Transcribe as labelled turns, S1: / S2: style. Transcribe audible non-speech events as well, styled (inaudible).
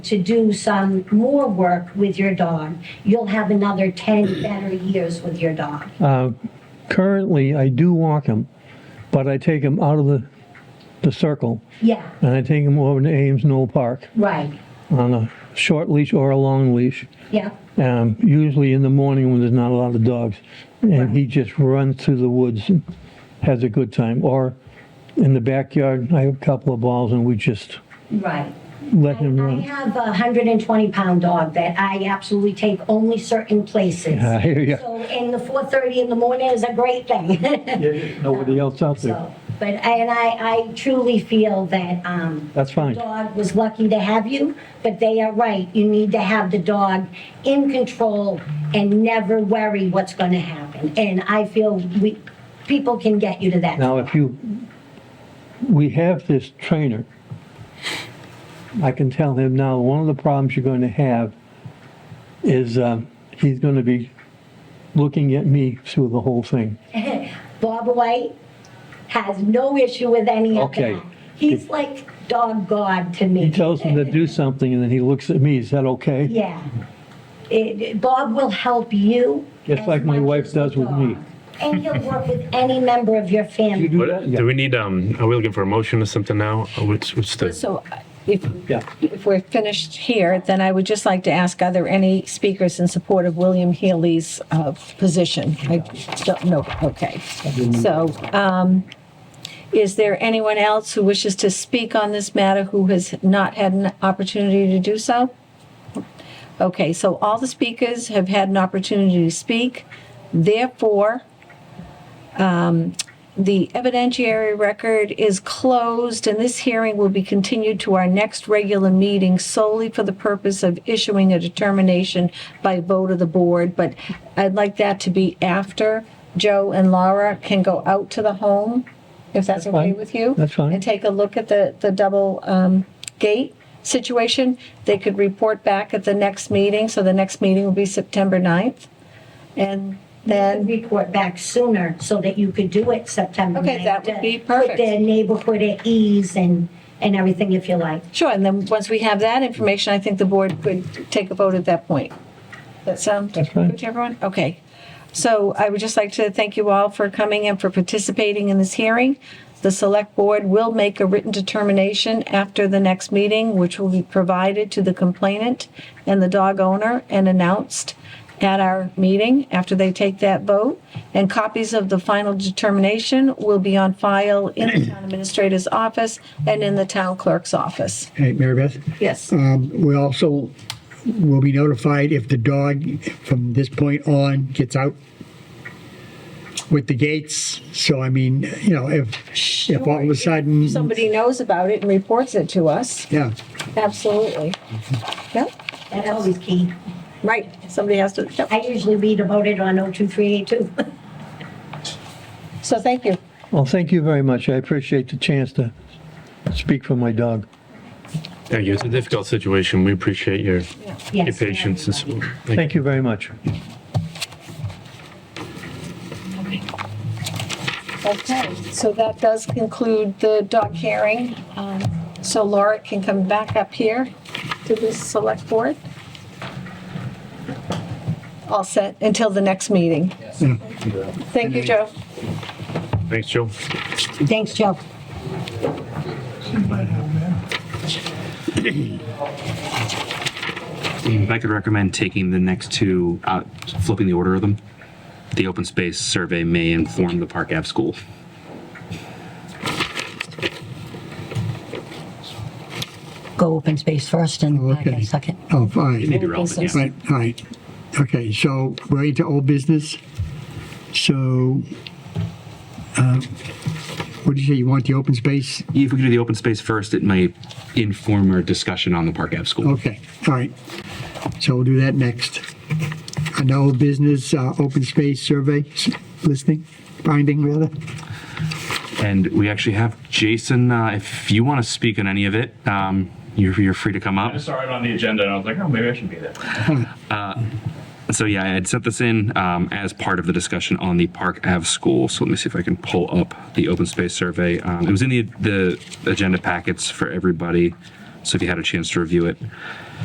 S1: to do some more work with your dog, you'll have another 10 better years with your dog.
S2: Currently, I do walk him, but I take him out of the, the circle
S1: Yeah,
S2: and I take him over to Ames Knoll Park
S1: right.
S2: on a short leash or a long leash.
S1: Yeah,
S2: Um, usually in the morning when there's not a lot of dogs, and he just runs through the woods and has a good time. Or in the backyard, I have a couple of balls and we just
S1: right.
S2: let him
S1: I
S2: run.
S1: have a 120 pound dog that I absolutely take only certain places.
S2: (laughs) I hear you.
S1: So, and the 4:30 in the morning is a great thing. (laughs)
S2: Nobody else out there.
S1: So, but, and I, I truly feel that, um,
S2: That's fine.
S1: the Dog was lucky to have you, but they are right. You need to have the dog in control and never worry what's gonna happen. And I feel we, people can get you to that.
S2: Now, if you, we have this trainer. I can tell him now, one of the problems you're going to have is um, he's going to be looking at me through the whole thing.
S1: Bob White has no issue with any of
S2: Okay.
S1: that. He's like dog god to me.
S2: He tells him to do something and then he looks at me, is that okay?
S1: Yeah. It- it- Bob will help you.
S2: Just
S1: as
S2: like my
S1: much
S2: wife
S1: as the
S2: does with me.
S1: dog. And he'll work with any member of your family.
S2: You do that?
S3: What, do we need, um, are we looking for a motion or something now? Or What's, what's the,
S4: So if,
S2: Yeah.
S4: if we're finished here, then I would just like to ask, are there any speakers in support of William Healy's uh, position? I don't know, okay. So um, is there anyone else who wishes to speak on this matter who has not had an opportunity to do so? Okay, so all the speakers have had an opportunity to speak. Therefore, um, the evidentiary record is closed and this hearing will be continued to our next regular meeting solely for the purpose of issuing a determination by vote of the board. But I'd like that to be after Joe and Laura can go out to the home, if that's okay
S2: fine.
S4: with you.
S2: That's fine.
S4: And take a look at the, the double um, gate situation. They could report back at the next meeting. So the next meeting will be September 9th. And then.
S1: and report back sooner so that you could do it September.
S4: Okay,
S1: 9th,
S4: that would
S1: to
S4: be perfect.
S1: Put the neighborhood at ease and, and everything if you like.
S4: Sure, and then once we have that information, I think the board could take a vote at that point. That sound
S2: That's fine.
S4: good to everyone? Okay. So I would just like to thank you all for coming and for participating in this hearing. The select board will make a written determination after the next meeting, which will be provided to the complainant and the dog owner and announced at our meeting after they take that vote. And copies of the final determination will be on file in the town administrator's office and in the town clerk's office.
S5: Hey, Mary Beth,
S4: Yes.
S5: um, we also will be notified if the dog from this point on gets out with the gates. So I mean, you know, if, if all of a sudden,
S4: Somebody knows about it and reports it to us.
S5: yeah,
S4: Absolutely. Yep,
S1: That's always key.
S4: right. Somebody has to, yep.
S1: I usually read about it on 02382.
S4: So thank you.
S2: Well, thank you very much. I appreciate the chance to speak for my dog.
S3: thank you, it's a difficult situation. We appreciate your, your
S1: (laughs) Yes.
S3: patience and support. Thank you.
S2: Thank you very much.
S4: Okay, so that does conclude the dog hearing. Um, So Laura can come back up here to the select board. All set until the next meeting. Thank you, Joe.
S3: Thanks, Joe.
S1: Thanks, Joe.
S6: If I could recommend taking the next two out, flipping the order of them. The open space survey may inform the Park Ave school.
S7: go open space first and
S5: Oh,
S7: Park Ave
S5: okay.
S7: second.
S5: oh, fine.
S6: Maybe relevant, yeah.
S5: Right, all right. Okay, so we're into old business. So, uh, what did you say? You want the open space?
S6: If we could do the open space first, it might inform our discussion on the Park Ave school.
S5: Okay, all right. So we'll do that next. An old business, uh, open space survey s- listing, binding rather.
S6: And we actually have Jason, uh, if you want to speak on any of it, um, you're, you're free to come up.
S8: I saw it on the agenda and I was like, oh, maybe I should be there.
S6: (laughs) Uh, So yeah, I had sent this in um, as part of the discussion on the Park Ave school. So let me see if I can pull up the open space survey. Um, it was in the the agenda packets for everybody. So if you had a chance to review it,